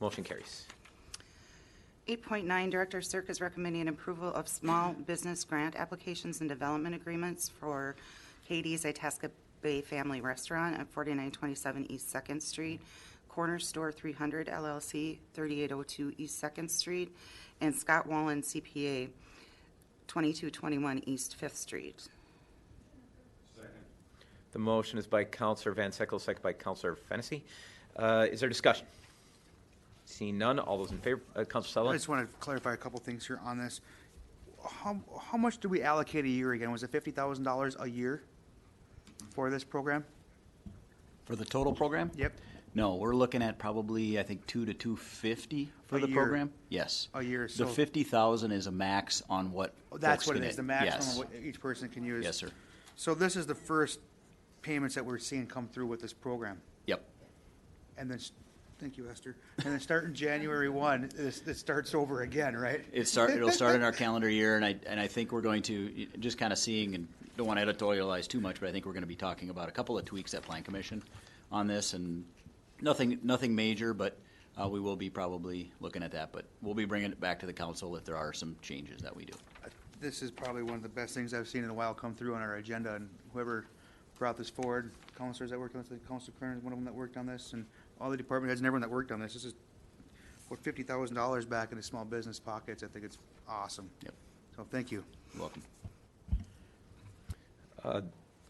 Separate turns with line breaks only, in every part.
Motion carries.
8.9, Director Cirque is recommending approval of small business grant applications and development agreements for Katie's Itasca Bay Family Restaurant at 4927 East Second Street, Corner Store 300 LLC, 3802 East Second Street, and Scott Wallen CPA, 2221 East Fifth Street.
The motion is by Counselor Van Sickle, second by Counselor Fennessy. Uh, Is there discussion? Seeing none, all those in favor, uh, Counselor
I
Sutherland?
just want to clarify a couple things here on this. How, how much do we allocate a year again? Was it fifty thousand dollars a year for this program?
For the total program?
Yep.
No, we're looking at probably, I think, two to two fifty for
A
the
year.
program. Yes.
A year,
The
so-
fifty thousand is a max on what.
Oh, That's
folks
what it
can
is, the
get.
maximum
Yes.
what each person can use.
Yes, sir.
So this is the first payments that we're seeing come through with this program.
Yep.
And then, s- thank you, Esther. And then starting January one, this, this starts over again, right?
It start, it'll start in our calendar year, and I, and I think we're going to, just kind of seeing, and don't want to editorialize too much, but I think we're going to be talking about a couple of tweaks at Plan Commission on this, and nothing, nothing major, but uh, we will be probably looking at that, but we'll be bringing it back to the council if there are some changes that we do.
This is probably one of the best things I've seen in a while come through on our agenda, and whoever brought this forward, counselors that worked on this, Council Kern is one of them that worked on this, and all the department heads and everyone that worked on this, this is, what, fifty thousand dollars back into small business pockets, I think it's awesome.
Yep.
So, thank you.
You're Welcome.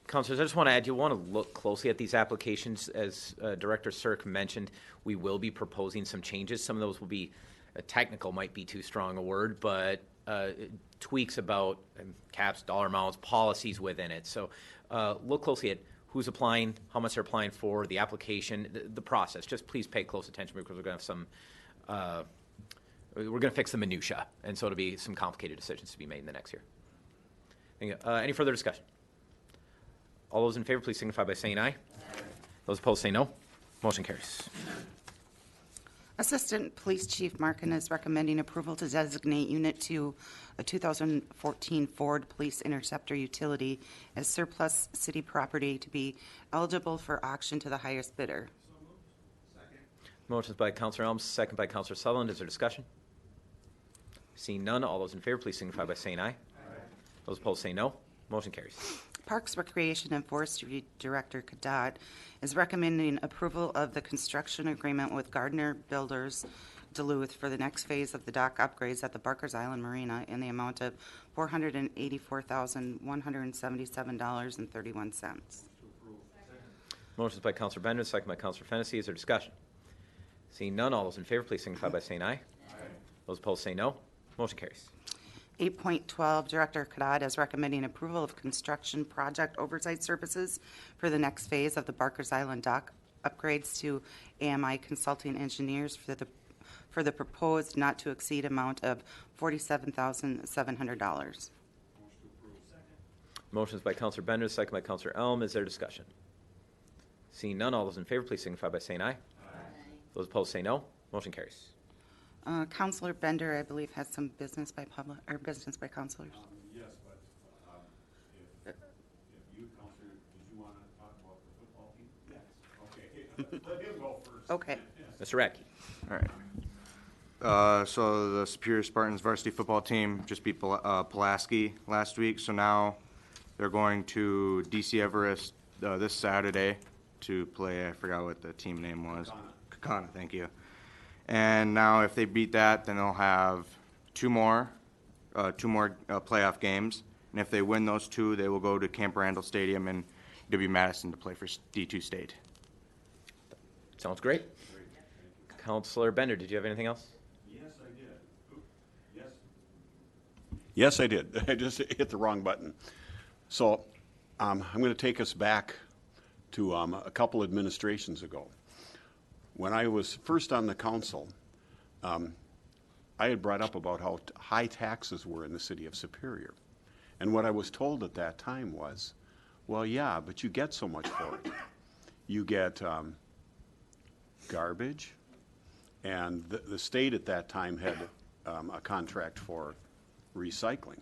Counselors, I just want to add, you want to look closely at these applications. As uh, Director Cirque mentioned, we will be proposing some changes. Some of those will be, uh, technical might be too strong a word, but uh, tweaks about um, caps, dollar amounts, policies within it. So uh, look closely at who's applying, how much they're applying for, the application, the- the process. Just please pay close attention because we're going to have some, uh, we're going to fix the minutia, and so it'll be some complicated decisions to be made in the next year. Thank you. Uh, Any further discussion? All those in favor, please signify by saying aye. Those opposed, say no. Motion carries.
Assistant Police Chief Markin is recommending approval to designate Unit 2, a 2014 Ford Police Interceptor utility, as surplus city property to be eligible for auction to the highest bidder.
Motion's by Counselor Elms, second by Counselor Sutherland. Is there discussion? Seeing none, all those in favor, please signify by saying aye. Those opposed, say no. Motion carries.
Parks, Recreation, and Forestry Director Kadat is recommending approval of the construction agreement with Gardner Builders Duluth for the next phase of the dock upgrades at the Barkers Island Marina in the amount of $484,177.31.
Motion's by Counselor Bender, second by Counselor Fennessy. Is there discussion? Seeing none, all those in favor, please signify by saying aye. Those opposed, say no. Motion carries.
8.12, Director Kadad is recommending approval of construction project oversight services for the next phase of the Barkers Island dock upgrades to AMI Consulting Engineers for the, for the proposed not-to-exceed amount of $47,700.
Motion's by Counselor Bender, second by Counselor Elm. Is there discussion? Seeing none, all those in favor, please signify by saying aye. Those opposed, say no. Motion carries.
Uh, Counselor Bender, I believe, has some business by public, or business by counselors.
Yes, but um, if, if you, Counselor, did you want to talk about the football team? Yes. Okay, let him go first.
Okay.
Mr. Radke.
All right. Uh, So the Superior Spartans varsity football team just beat Pul- uh, Pulaski last week, so now they're going to DC Everest uh, this Saturday to play, I forgot what the team name was. Kakana, thank you. And now if they beat that, then they'll have two more, uh, two more uh, playoff games. And if they win those two, they will go to Camp Randall Stadium in W-Madison to play for s- D2 State.
Sounds great. Counselor Bender, did you have anything else?
Yes, I did. Oop, Yes. Yes, I did. I just hit the wrong button. So um, I'm going to take us back to um, a couple administrations ago. When I was first on the council, um, I had brought up about how t- high taxes were in the city of Superior. And what I was told at that time was, well, yeah, but you get so much for it. You get um, garbage, and the, the state at that time had um, a contract for recycling.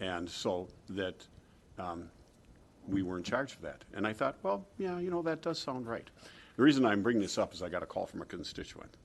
And so that um, we were in charge of that. And I thought, well, yeah, you know, that does sound right. The reason I'm bringing this up is I got a call from a constituent